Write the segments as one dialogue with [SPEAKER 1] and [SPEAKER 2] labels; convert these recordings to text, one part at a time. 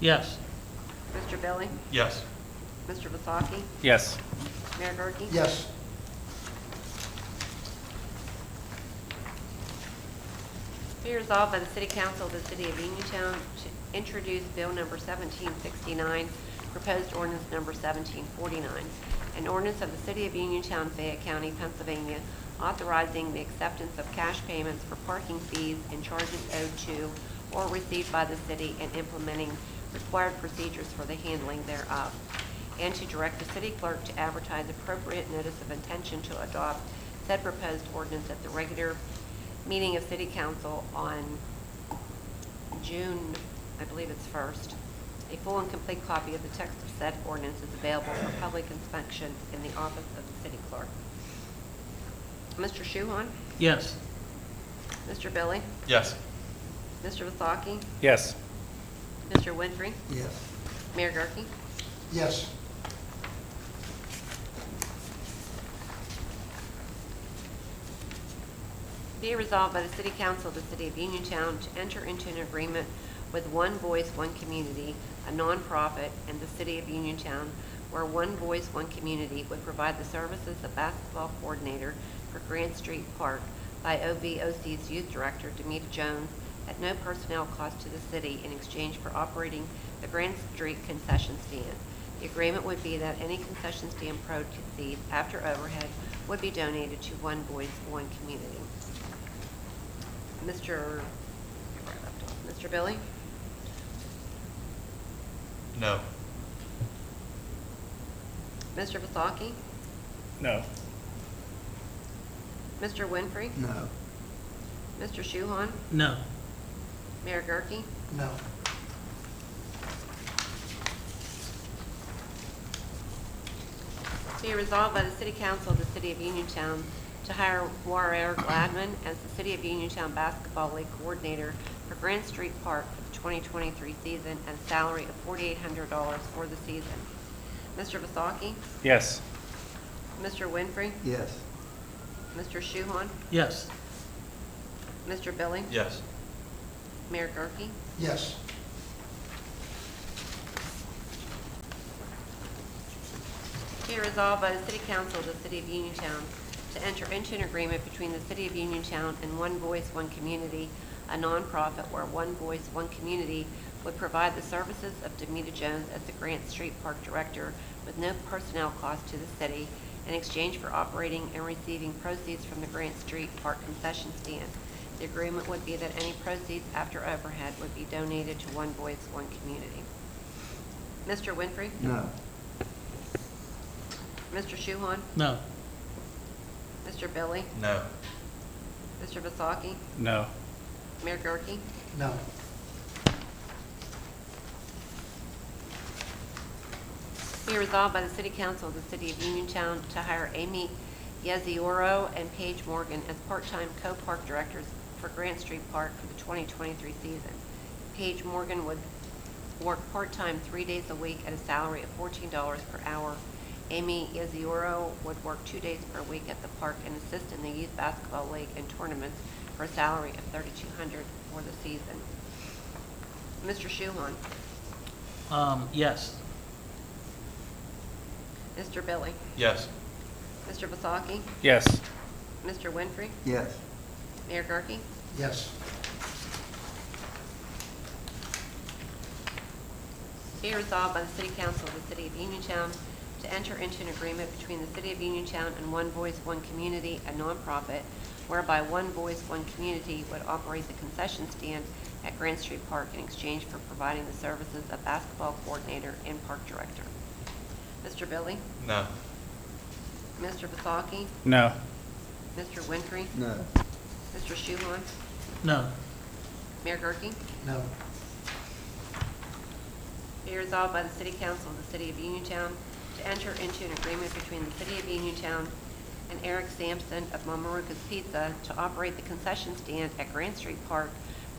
[SPEAKER 1] Yes.
[SPEAKER 2] Mr. Billy?
[SPEAKER 3] Yes.
[SPEAKER 2] Mr. Vasaki?
[SPEAKER 4] Yes.
[SPEAKER 2] Mayor Gurke?
[SPEAKER 5] Yes.
[SPEAKER 2] Be resolved by the City Council of the City of Uniontown to introduce Bill Number 1769, proposed ordinance Number 1749, an ordinance of the City of Uniontown, Fayette County, Pennsylvania, authorizing the acceptance of cash payments for parking fees and charges owed to or received by the city and implementing required procedures for the handling thereof, and to direct the city clerk to advertise appropriate notice of intention to adopt said proposed ordinance at the regular meeting of city council on June, I believe it's first. A full and complete copy of the text of said ordinance is available for public inspection in the office of the city clerk. Mr. Shuhon?
[SPEAKER 1] Yes.
[SPEAKER 2] Mr. Billy?
[SPEAKER 3] Yes.
[SPEAKER 2] Mr. Vasaki?
[SPEAKER 4] Yes.
[SPEAKER 2] Mr. Winfrey?
[SPEAKER 5] Yes.
[SPEAKER 2] Mayor Gurke?
[SPEAKER 5] Yes.
[SPEAKER 2] Be it resolved by the City Council of the City of Uniontown to enter into an agreement with One Voice, One Community, a nonprofit in the City of Uniontown, where One Voice, One Community would provide the services of basketball coordinator for Grant Street Park by OVOC's youth director, Demita Jones, at no personnel cost to the city in exchange for operating the Grand Street concession stand. The agreement would be that any concession stand proceeds after overhead would be donated to One Voice, One Community. Mr. Mr. Billy?
[SPEAKER 3] No.
[SPEAKER 2] Mr. Vasaki?
[SPEAKER 4] No.
[SPEAKER 2] Mr. Winfrey?
[SPEAKER 5] No.
[SPEAKER 2] Mr. Shuhon?
[SPEAKER 1] No.
[SPEAKER 2] Mayor Gurke?
[SPEAKER 5] No.
[SPEAKER 2] Be resolved by the City Council of the City of Uniontown to hire Warrior Gladman as the City of Uniontown Basketball League Coordinator for Grand Street Park for the 2023 season at a salary of $4,800 for the season. Mr. Vasaki?
[SPEAKER 4] Yes.
[SPEAKER 2] Mr. Winfrey?
[SPEAKER 5] Yes.
[SPEAKER 2] Mr. Shuhon?
[SPEAKER 1] Yes.
[SPEAKER 2] Mr. Billy?
[SPEAKER 3] Yes.
[SPEAKER 2] Mayor Gurke?
[SPEAKER 5] Yes.
[SPEAKER 2] Be resolved by the City Council of the City of Uniontown to enter into an agreement between the City of Uniontown and One Voice, One Community, a nonprofit where One Voice, One Community would provide the services of Demita Jones as the Grant Street Park Director with no personnel cost to the city in exchange for operating and receiving proceeds from the Grant Street Park concession stand. The agreement would be that any proceeds after overhead would be donated to One Voice, One Community. Mr. Winfrey?
[SPEAKER 5] No.
[SPEAKER 2] Mr. Shuhon?
[SPEAKER 1] No.
[SPEAKER 2] Mr. Billy?
[SPEAKER 3] No.
[SPEAKER 2] Mr. Vasaki?
[SPEAKER 4] No.
[SPEAKER 2] Mayor Gurke?
[SPEAKER 5] No.
[SPEAKER 2] Be resolved by the City Council of the City of Uniontown to hire Amy Yezioro and Paige Morgan as part-time co-park directors for Grant Street Park for the 2023 season. Paige Morgan would work part-time three days a week at a salary of $14 per hour. Amy Yezioro would work two days per week at the park and assist in the youth basketball league and tournaments for a salary of $3,200 for the season. Mr. Shuhon?
[SPEAKER 1] Um, yes.
[SPEAKER 2] Mr. Billy?
[SPEAKER 3] Yes.
[SPEAKER 2] Mr. Vasaki?
[SPEAKER 4] Yes.
[SPEAKER 2] Mr. Winfrey?
[SPEAKER 5] Yes.
[SPEAKER 2] Mayor Gurke?
[SPEAKER 5] Yes.
[SPEAKER 2] Be resolved by the City Council of the City of Uniontown to enter into an agreement between the City of Uniontown and One Voice, One Community, a nonprofit, whereby One Voice, One Community would operate the concession stand at Grand Street Park in exchange for providing the services of basketball coordinator and park director. Mr. Billy?
[SPEAKER 3] No.
[SPEAKER 2] Mr. Vasaki?
[SPEAKER 4] No.
[SPEAKER 2] Mr. Winfrey?
[SPEAKER 5] No.
[SPEAKER 2] Mr. Shuhon?
[SPEAKER 1] No.
[SPEAKER 2] Mayor Gurke?
[SPEAKER 5] No.
[SPEAKER 2] Be resolved by the City Council of the City of Uniontown to enter into an agreement between the City of Uniontown and Eric Sampson of Mamarukas Pizza to operate the concession stand at Grand Street Park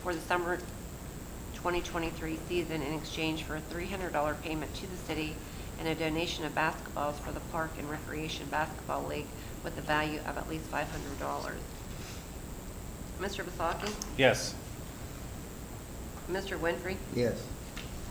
[SPEAKER 2] for the summer 2023 season in exchange for a $300 payment to the city and a donation of basketballs for the Park and Recreation Basketball League with the value of at least $500. Mr. Vasaki?
[SPEAKER 4] Yes.
[SPEAKER 2] Mr. Winfrey?
[SPEAKER 5] Yes.